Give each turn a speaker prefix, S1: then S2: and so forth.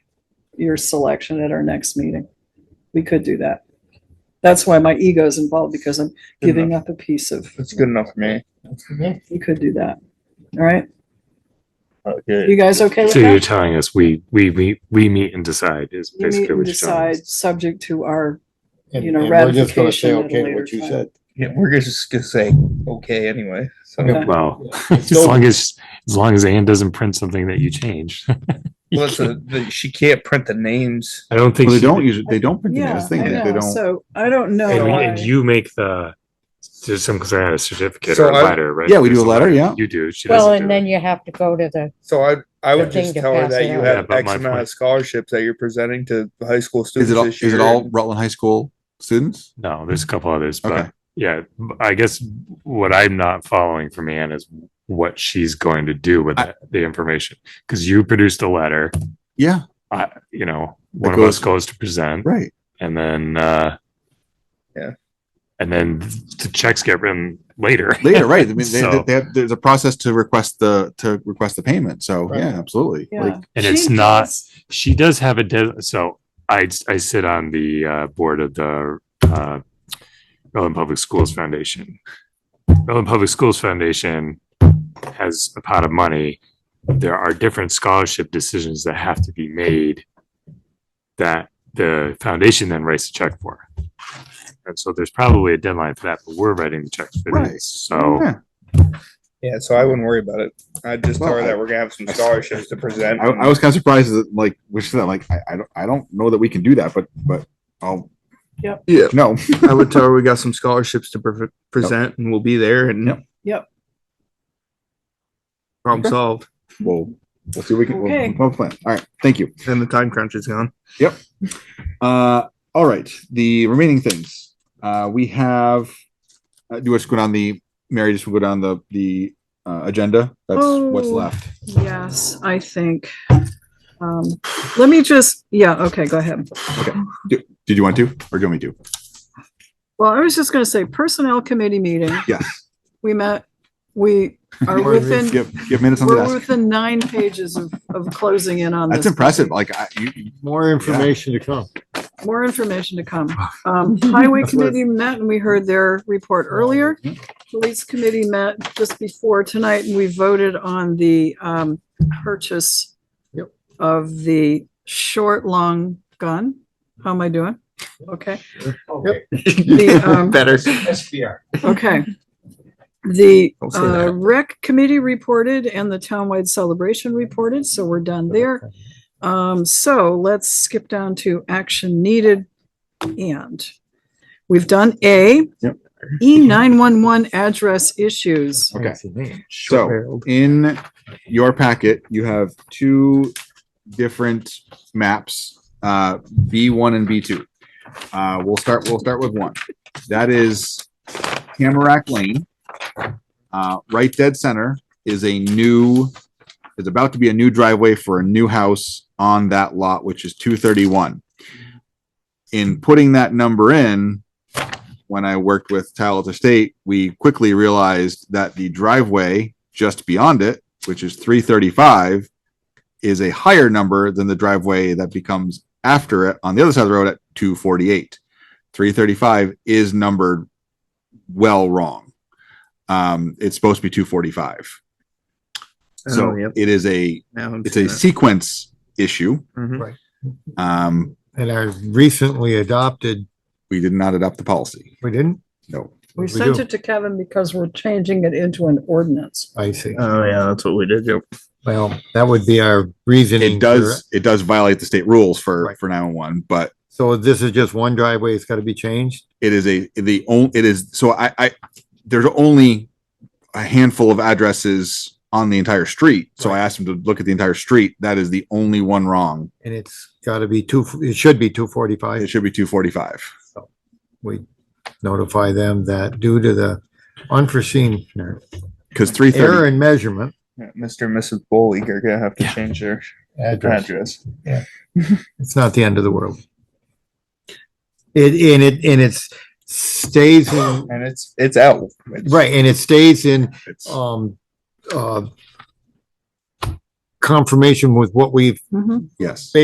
S1: your selection at our next meeting. We could do that. That's why my ego's involved because I'm giving up a piece of,
S2: That's good enough for me.
S1: we could do that. All right,
S2: Okay.
S1: you guys okay with
S3: So you're
S1: that?
S3: telling us we, we, we, we meet and decide is
S1: You meet
S3: basically
S1: and
S3: what you're telling
S1: decide,
S3: us.
S1: subject to our,
S4: And-
S1: you know,
S4: and we're just gonna
S1: ratification
S4: say
S1: at a
S4: okay to
S1: later
S4: what you
S1: time.
S4: said.
S2: Yeah, we're just gonna say okay anyway. So
S1: Okay.
S3: Well, as long as, as long as Anne doesn't print something that you change. You
S2: well, it's
S3: can't-
S2: a, uh, the, she can't print the names.
S3: I don't think.
S5: Well, they
S3: she
S5: don't
S3: did.
S5: usually, they don't print the
S1: yeah,
S5: names.
S1: I
S5: They they
S1: know.
S5: don't.
S1: So I don't know.
S3: And, we-
S1: why.
S3: and you make the, there's some kind of certificate
S2: So
S3: or
S2: I-
S3: a letter, right?
S5: Yeah, we do
S3: There's
S5: a letter,
S3: something
S5: yeah.
S3: You do, she
S6: Well,
S3: doesn't
S6: and
S3: do
S6: then
S3: it.
S6: you have to go to the,
S2: So I I would
S6: The thing
S2: just
S6: to
S2: tell her
S6: pass
S2: that
S6: it
S2: you
S6: out.
S3: Yeah,
S2: have
S3: but
S2: X
S3: my
S2: amount
S3: point-
S2: of scholarships that you're presenting to high school
S5: Is
S2: students
S5: it all,
S2: this
S5: is
S2: year.
S5: it all Rutland High School students?
S3: No, there's a couple others,
S5: Okay.
S3: but yeah, I guess what I'm not following from Anne is what she's going to do with
S5: I-
S3: that, the information. Cause you produced a letter,
S5: Yeah,
S3: I, you know, one of
S5: goes-
S3: us goes to present.
S5: right.
S3: and then uh
S2: Yeah.
S3: and then the checks get written later
S5: Later, right. I mean, they,
S3: So-
S5: they have, there's a process to request the, to request the payment. So,
S4: Right.
S5: yeah, absolutely.
S1: Yeah.
S5: Like,
S3: and
S1: She
S3: it's not-
S1: does.
S3: she does have a de- so i i sit on the uh board of the uh Berlin Public Schools Foundation. Berlin Public Schools Foundation has a pot of money. There are different scholarship decisions that have to be made that the foundation then writes a check for. And so there's probably a deadline for that, but we're writing the checks for
S5: Right.
S3: these. So
S5: yeah.
S2: Yeah, so I wouldn't worry about it. I'd just tell
S5: Well,
S2: her
S5: I-
S2: that we're gonna have some scholarships to present.
S5: I, I was kind of surprised that like, which that like, I, I don't, I don't know that we can do that, but, but I'll.
S1: Yep.
S5: Yeah. No.
S2: I would tell her we got some scholarships to pre- present and we'll be there and
S5: Yep.
S1: Yep.
S2: problem
S5: Okay.
S2: solved.
S5: We'll, we'll see what we can, we'll,
S1: Okay.
S5: we'll plan. All right. Thank you.
S2: Then the time crunch is gone.
S5: Uh, all right, the remaining things, uh, we have, uh, do you want us to go down the, Mary, just go down the, the, uh, agenda? That's what's
S1: Oh.
S5: left.
S1: Yes, I think. Um, let me just, yeah, okay, go ahead.
S5: Did you want to, or do you want me to?
S1: Well, I was just gonna say Personnel Committee meeting.
S5: Yes.
S1: We met, we are within,
S5: Give, give minutes on the
S1: we're
S5: desk.
S1: within nine pages of, of closing in on this.
S5: That's impressive. Like, I, you, you-
S4: More
S5: information
S4: to come.
S1: More information to come. Um, Highway Committee met and we heard their report earlier.
S5: Mm-hmm.
S1: Police Committee met just before tonight and we voted on the, um, purchase
S4: Yep.
S1: of the short, long gun. How am I doing? Okay. The, um,
S2: Better.
S1: Okay. The
S2: Don't say
S1: uh,
S2: that.
S1: rec committee reported and the townwide celebration reported, so we're done there. Um, so let's skip down to action needed and we've done A.
S5: Yep.
S1: E nine one one address issues.
S5: okay, so in your packet, you have two different maps, uh, B one and B two. Uh, we'll start, we'll start with one. That is Tamarack Lane. Uh, right dead center is a new, is about to be a new driveway for a new house on that lot, which is two thirty-one. In putting that number in, when I worked with Talat Estate, we quickly realized that the driveway just beyond it, which is three thirty-five, is a higher number than the driveway that becomes after it on the other side of the road at two forty-eight. Three thirty-five is numbered well wrong. Um, it's supposed to be two forty-five. So
S2: Oh, yep.
S5: it is a, it's a sequence issue.
S2: Mm-hmm.
S5: Um,
S4: And our recently adopted,
S5: we did not adopt the policy.
S4: we didn't?
S5: No.
S1: We
S4: We
S1: sent
S4: do.
S1: it to Kevin because we're changing it into an ordinance.
S4: I see.
S2: Oh, yeah, that's what we did. Yep.
S4: Well, that would be our reasoning.
S5: It
S4: for-
S5: does, it does violate the state rules for,
S4: Right.
S5: for nine one one, but
S4: So this is just one driveway, it's gotta be changed?
S5: it is a the only it is so I I there's only a handful of addresses on the entire street. So I asked him to look at the entire street. That is the only one wrong.
S4: And it's gotta be two, it should be two
S5: It
S4: forty-five.
S5: should be two forty five.
S4: We notify them that due to the unforeseen
S5: Because three
S4: error
S5: thirty
S4: in measurement.
S2: Mr. and Mrs. Bowley are gonna have to change their address.
S4: It's not the end of the world. It, and it, and it's stays in,
S2: And it's, it's out. It's-
S4: right, and it stays in
S5: it's
S4: um, uh, confirmation with what we've
S1: Mhm.
S5: yes.